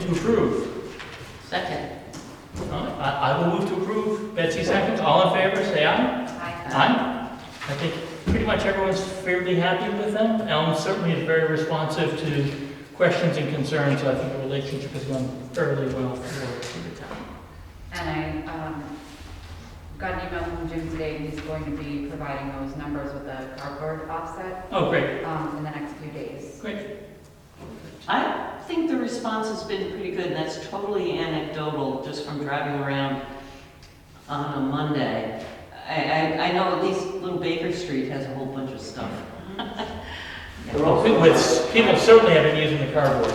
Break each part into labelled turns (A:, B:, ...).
A: to approve.
B: Second.
A: Uh, I, I will move to approve. Betsy seconds. All in favor, say aye. Aye. I think pretty much everyone's fairly happy with them. Elm certainly is very responsive to questions and concerns, so I think the relationship has gone fairly well for the town.
B: And I, um, got an email from Jim today, he's going to be providing those numbers with a cardboard offset,
A: Oh, great,
B: um, in the next few days.
A: great.
C: I think the response has been pretty good, and that's totally anecdotal, just from driving around on a Monday. I, I, I know at least Little Baker Street has a whole bunch of stuff.
A: People people certainly have been using the cardboard.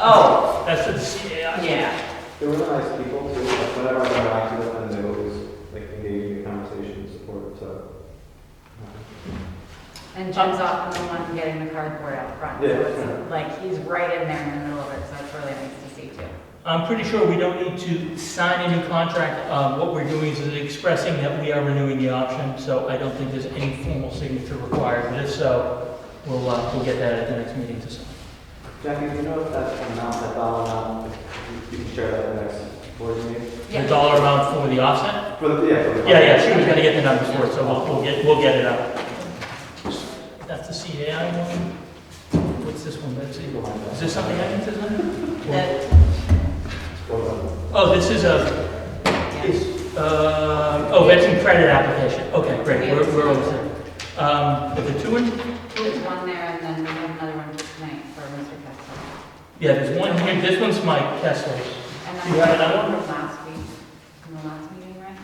C: Oh,
A: That's, it's- yeah.
C: yeah,
D: They were nice people too, like, whenever I went back to them, and they were always like engaging in conversation and support, so.
B: And Jim's often the one getting the cardboard out front, so
D: Yeah.
B: it's like, he's right in there in the middle of it, so it's really nice to see too.
A: I'm pretty sure we don't need to sign a new contract. Um, What we're doing is expressing that we are renewing the option, so I don't think there's any formal signature required for this, so we'll, uh, we'll get that at the next meeting to sign.
D: Jackie, do you know if that's an amount, that dollar amount, if you you can share that in the next board meeting?
A: The
B: Yeah.
A: dollar amount for the offset?
D: For the, yeah. for the-
A: Yeah, yeah, she was gonna get the numbers for it, so we'll, we'll get, we'll get it out. That's the CAI one? What's this one, Betsy? Is this something I can sign?
C: that,
D: Well,
A: Oh, this is a,
C: yeah.
A: It's, uh, oh, veteran credit application, okay, great, we're, we're almost there. Um, but the two in,
B: There's one there, and then we have another one tonight for Mr. Kessler.
A: yeah, there's one here, this one's my Kessler's.
B: And
A: You
B: then
A: have another
B: one from last week, from the last meeting, right?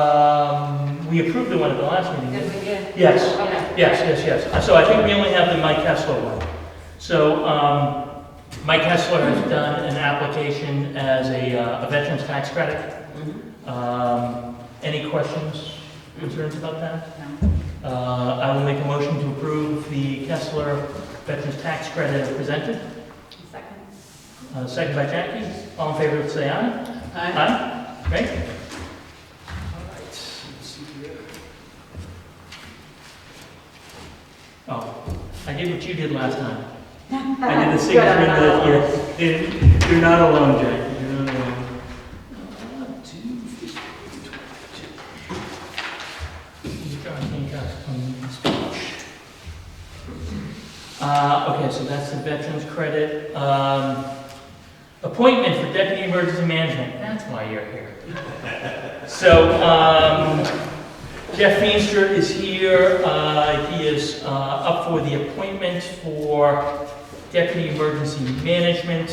A: Um, we approved the one at the last meeting.
B: Yes,
A: didn't we?
B: we did.
A: Yes.
B: Okay.
A: Yes, yes, yes, Uh, so I think we only have the Mike Kessler one. So, um, Mike Kessler has done an application as a, uh, a veteran's tax credit.
C: Mhm.
A: Um, any questions, concerns about that?
B: No.
A: Uh, I will make a motion to approve the Kessler Veterans Tax Credit as presented.
B: Second?
A: Uh, Second by Jackie. All in favor, say aye.
C: I-
A: Aye. Great. All right. Let's see here. Oh, I did what you did last time. I did the signature that, yeah, and you're not alone, Jackie, you're not alone. One, two, three, two. John Hancock's coming in speech. Uh, okay, so that's the veterans credit. Um, appointment for deputy emergency management, that's why you're here. So, um, Jeff Feenster is here, uh, he is, uh, up for the appointment for Deputy Emergency Management.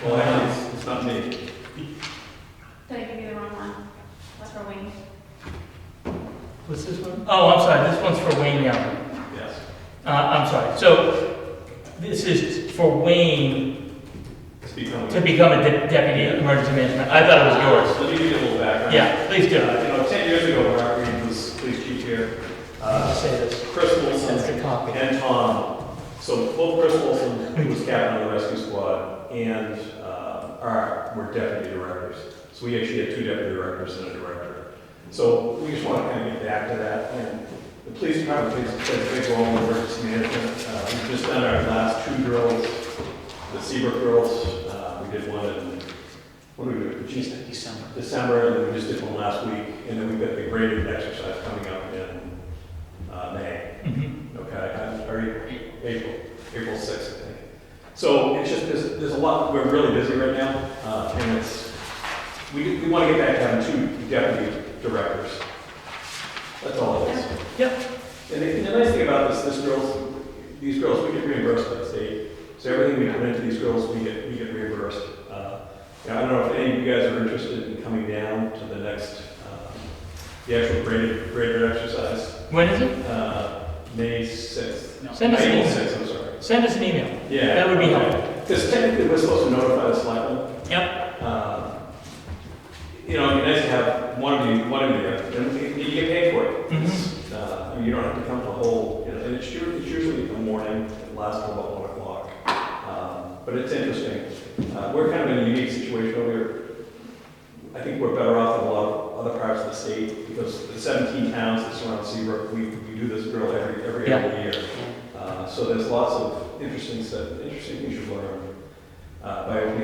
D: hang on.
E: It's not me.
F: Did I give you the wrong one? That's for Wayne.
A: What's this one? Oh, I'm sorry, this one's for Wayne now.
E: Yes.
A: Uh, I'm sorry, so this is for Wayne
E: Speak on
A: to become a de- Deputy Emergency Management. I thought it was yours.
E: Let me give you a little background.
A: Yeah, please
E: Uh, You
A: do.
E: know, 10 years ago, Mark Green was police chief here. Uh,
A: Just say this.
E: Chris
A: That's
E: Wilson
A: the copy.
E: and Tom. So both Chris Wilson, who was captain of the rescue squad, and uh, our, were deputy directors. So we actually had two deputy directors and a director. So we just want to kind of get back to that. And the police department plays plays a big role in emergency management. Uh, We've just done our last two drills, the Seabrook drills. Uh, We did one in, what do we do? Geez,
C: December.
E: December, and then we just did one last week, and then we've got the graded exercise coming up in uh, May,
A: Mhm.
E: okay, or April, April sixth, I think. So it's just, there's, there's a lot, we're really busy right now, uh, and it's, we, we want to get back down to two deputy directors. That's all it is.
A: Yep.
E: And the, and the nice thing about this, this girls, these girls, we get reimbursed by the state, so everything we put into these girls, we get, we get reimbursed. Uh, yeah, I don't know if any of you guys are interested in coming down to the next, um, the actual graded, graded exercise,
A: When is it?
E: uh, May sixth.
A: Send us an
E: April
A: email.
E: sixth, I'm sorry.
A: Send us an email.
E: Yeah.
A: That would be
E: Because technically, we're supposed to notify the selectmen.
A: Yep.
E: Um, You know, it'd be nice to have one of you, one of you, there, then you you get paid for it.
A: Mhm.
E: It's, uh, I mean, You don't have to come to the whole, you know, and it's usually, it's usually the morning, it lasts till about one o'clock. Um, But it's interesting. Uh, We're kind of in a unique situation where we're, I think we're better off than a lot of other parts of the state because the seventeen towns that surround Seabrook, we, we do this drill every, every
A: Yeah.
E: other year. Uh, So there's lots of interesting, stuff- interesting things you learn uh, by opening